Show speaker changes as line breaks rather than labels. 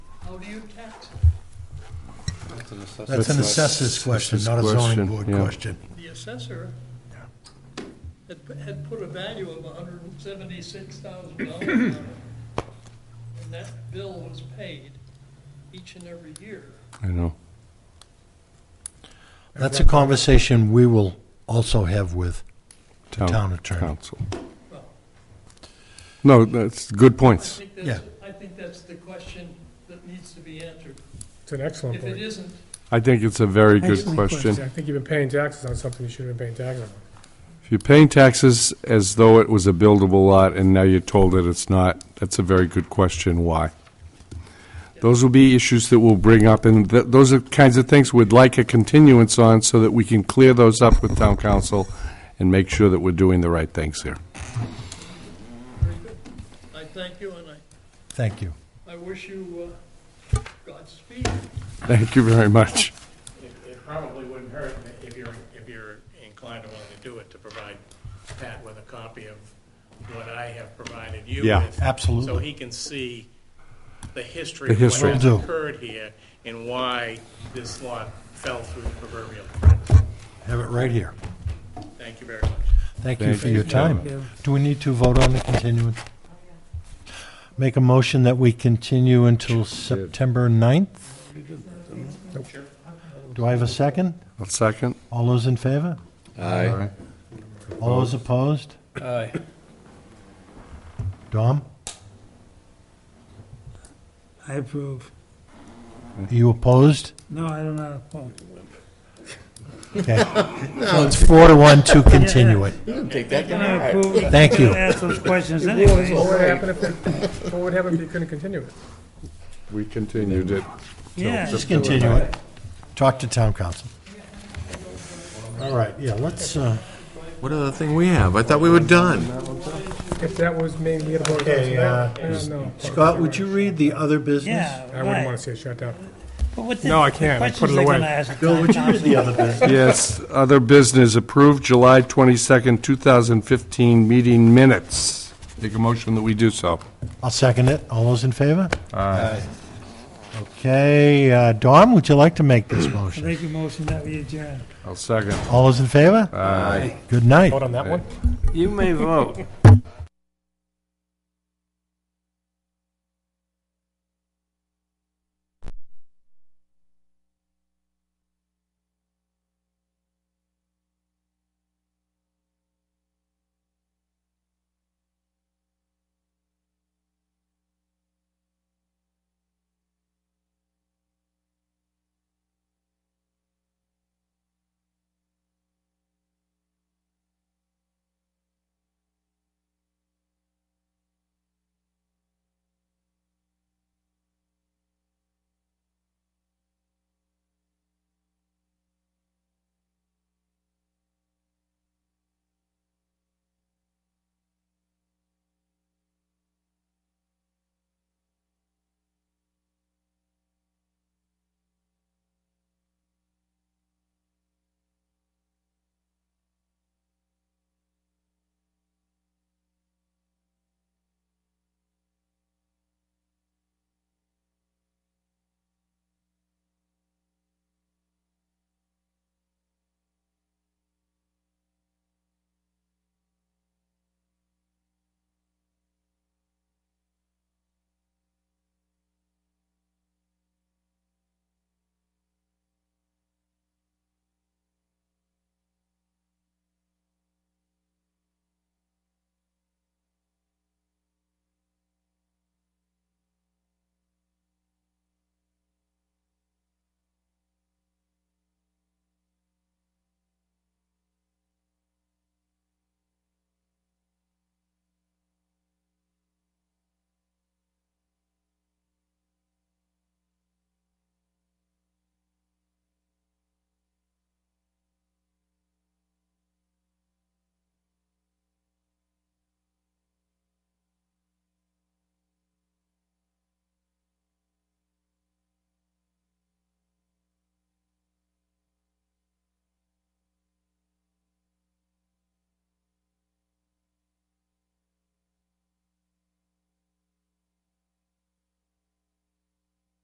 How do you tax?
That's an
That's not-
assessors question,
assessors
not a zoning
question,
board
yeah.
question.
The assessor had, pu- had put a value of hundred and seventy-six thousand dollars on it. And that bill was paid each and every year.
I know.
That's a conversation we will also have with the
Town
town attorney.
Council.
Well,
No, that's good
I
points.
think that's, I think that's the question that needs to be answered.
It's an excellent
If it
point.
isn't,
I think it's a very good
Excellent
question.
I think you've been paying taxes on something you shouldn't have been paying taxes on.
If you're paying taxes as though it was a buildable lot and now you're told that it's not, that's a very good question, why? Those will be issues that we'll bring up, and th- those are kinds of things we'd like a continuance on so that we can clear those up with town council and make sure that we're doing the right things here.
very good. I thank you and I,
Thank you.
I wish you uh, Godspeed.
Thank you very much.
It it probably wouldn't hurt if you're, if you're inclined and willing to do it, to provide Pat with a copy of what I have provided you
Yeah.
with. So
Absolutely.
he can see the history
The
of what
history.
has
Will do.
occurred here and why this lot fell through the proverbial cracks.
Have it right here.
Thank you very much.
Thank you
Thank
for your time. Do we need to vote on the continuance? Make a motion that we continue until September 9th? Do I have a second?
A second?
All those in favor?
Aye.
All those opposed? Aye. Dom,
I approve.
are you opposed?
No, I don't know. Oh,
Okay. So it's four to one to continue it.
I approve.
Thank you.
Ask those questions anyway.
What would happen if, what would happen if you couldn't continue it?
We continued it.
Yeah.
Just continue it. Talk to town council. All right, yeah, let's, uh,
What other thing we have? I thought we were done.
If that was made, we had a vote on
Okay, uh,
that. I don't know.
Scott, would you read the other business?
Yeah,
I wouldn't want
right.
to see it shut down.
But what the-
No, I
the
can't. I put
Questions
it
they're
away.
gonna ask.
Bill, would you read the other business?
Yes, other business approved July 22nd, 2015 meeting minutes. Make a motion that we do so.
I'll second it. All those in favor? Aye. Okay, uh, Dawn, would you like to make this
I
motion?
make a motion that we adjourn.
I'll second.
All those in favor? Aye. Good night.
Vote on that one?
You may vote.